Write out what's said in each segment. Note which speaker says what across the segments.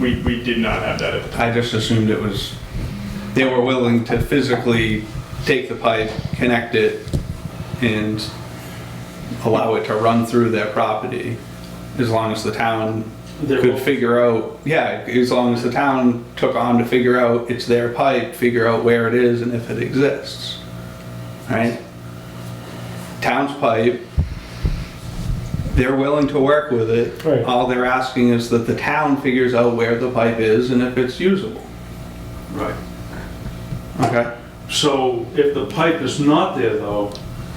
Speaker 1: We, we did not have that at the time.
Speaker 2: I just assumed it was, they were willing to physically take the pipe, connect it, and allow it to run through their property, as long as the town
Speaker 3: They're
Speaker 2: could
Speaker 3: willing.
Speaker 2: figure out, yeah, as long as the town took on to figure out it's their pipe, figure out where it is and if it exists, right? Town's pipe, they're willing to work with it.
Speaker 3: Right.
Speaker 2: All they're asking is that the town figures out where the pipe is and if it's usable.
Speaker 3: Right.
Speaker 2: Okay.
Speaker 3: So if the pipe is not there though,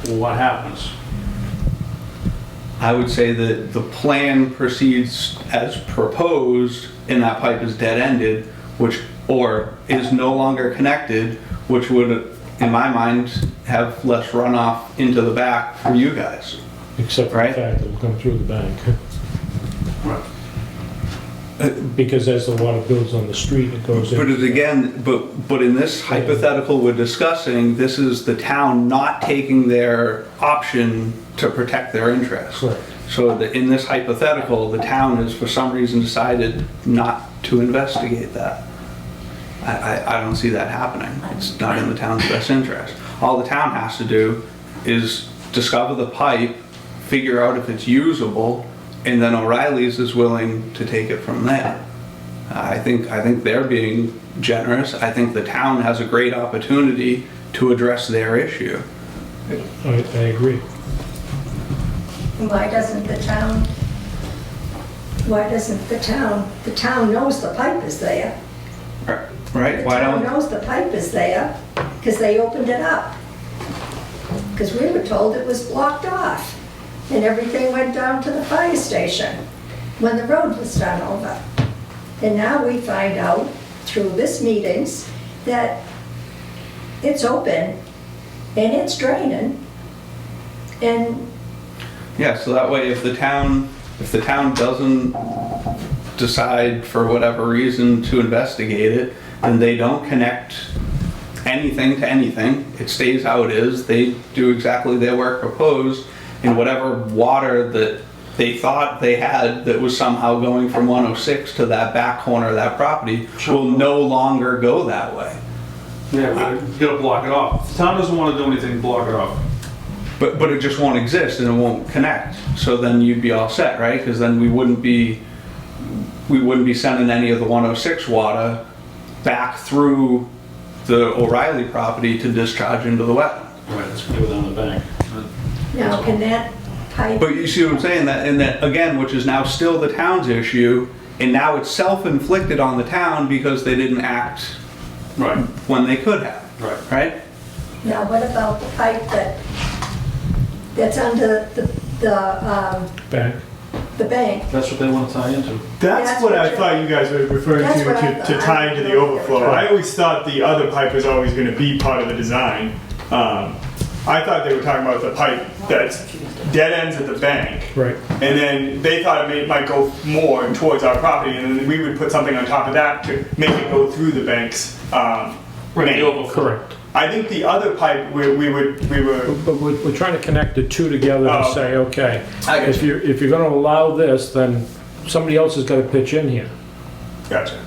Speaker 3: what happens?
Speaker 2: I would say that the plan proceeds as proposed and that pipe is dead-ended, which, or is no longer connected, which would, in my mind, have less runoff into the back for you guys.
Speaker 4: Except for the
Speaker 2: Right.
Speaker 4: fact that it'll come through the bank. Uh,
Speaker 3: Right.
Speaker 4: Because as the water builds on the street, it goes in.
Speaker 2: But it again, but, but in this hypothetical we're discussing, this is the town not taking their option to protect their interests.
Speaker 4: Correct.
Speaker 2: So the- in this hypothetical, the town has for some reason decided not to investigate that. I, I, I don't see that happening. It's not in the town's best interest. All the town has to do is discover the pipe, figure out if it's usable, and then O'Reilly's is willing to take it from there. I think, I think they're being generous. I think the town has a great opportunity to address their issue.
Speaker 4: I, I agree.
Speaker 5: Why doesn't the town, why doesn't the town, the town knows the pipe is there.
Speaker 2: Right? Why
Speaker 5: The town
Speaker 2: don't,
Speaker 5: knows the pipe is there, because they opened it up. Because we were told it was blocked off, and everything went down to the fire station when the road was done over. And now we find out through this meetings that it's open and it's draining. And
Speaker 2: yeah, so that way if the town, if the town doesn't decide for whatever reason to investigate it, and they don't connect anything to anything, it stays how it is, they do exactly their work proposed, and whatever water that they thought they had that was somehow going from 106 to that back corner of that property will no longer go that way.
Speaker 3: Yeah, but you gotta block it off. The town doesn't wanna do anything, block it off.
Speaker 2: But, but it just won't exist and it won't connect. So then you'd be all set, right? Because then we wouldn't be, we wouldn't be sending any of the 106 water back through the O'Reilly property to discharge into the wetland.
Speaker 3: Right, it's gonna go down the bank.
Speaker 5: now, can that pipe
Speaker 2: But you see what I'm saying? That and that again, which is now still the town's issue, and now it's self-inflicted on the town because they didn't act
Speaker 3: Right,
Speaker 2: when they could have.
Speaker 3: right.
Speaker 2: Right?
Speaker 5: Now, what about the pipe that, that's under the, the, um,
Speaker 4: Bank.
Speaker 5: the bank?
Speaker 3: That's what they wanna tie into.
Speaker 5: That's
Speaker 6: That's what
Speaker 5: what
Speaker 6: I
Speaker 5: you-
Speaker 6: thought you guys were referring
Speaker 5: That's
Speaker 6: to,
Speaker 5: what I
Speaker 6: to, to
Speaker 5: thought.
Speaker 6: tie into the overflow. I always thought the other pipe was always gonna be part of the design. Um, I thought they were talking about the pipe that's dead ends at the bank.
Speaker 4: Right.
Speaker 6: And then they thought it may, might go more towards our property, and then we would put something on top of that to make it go through the bank's, um, main.
Speaker 4: Correct.
Speaker 6: I think the other pipe, we, we would, we were,
Speaker 4: But we're, we're trying to connect the two together and
Speaker 6: Oh.
Speaker 4: say, okay,
Speaker 2: I get
Speaker 4: if you're, if you're gonna allow this, then somebody else has gotta pitch in here.
Speaker 6: gotcha.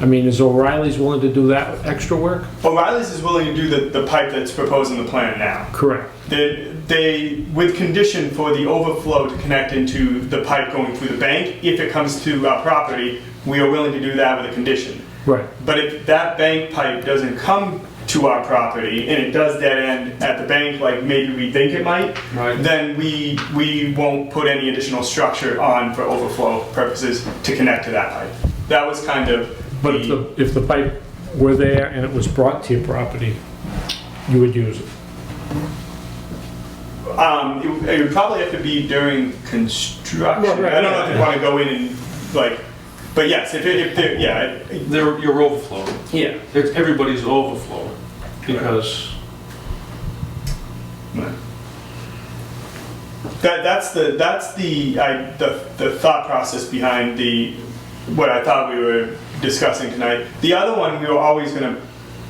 Speaker 4: I mean, is O'Reilly's willing to do that extra work?
Speaker 6: O'Reilly's is willing to do the, the pipe that's proposed in the plan now.
Speaker 4: Correct.
Speaker 6: They, they, with condition for the overflow to connect into the pipe going through the bank, if it comes to our property, we are willing to do that with a condition.
Speaker 4: Right.
Speaker 6: But if that bank pipe doesn't come to our property and it does dead end at the bank, like maybe we think it might,
Speaker 3: Right.
Speaker 6: then we, we won't put any additional structure on for overflow purposes to connect to that pipe. That was kind of
Speaker 4: But if
Speaker 6: the,
Speaker 4: the, if the pipe were there and it was brought to your property, you would use it.
Speaker 6: um, it, it would probably have to be during construction.
Speaker 4: Well, right,
Speaker 6: I don't know if
Speaker 4: yeah.
Speaker 6: they want to go in and like, but yes, if it, if there, yeah, it-
Speaker 3: They're, you're overflowing.
Speaker 6: yeah.
Speaker 3: It's, everybody's overflowing because
Speaker 6: That, that's the that's the, I, the the thought process behind the what I thought we were discussing tonight. The other one we were always going to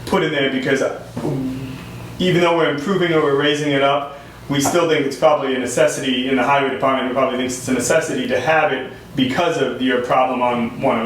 Speaker 6: put in there because um, even though we're improving or we're raising it up, we still think it's probably a necessity in the highway department. We probably thinks it's a necessity to have it because of your problem on one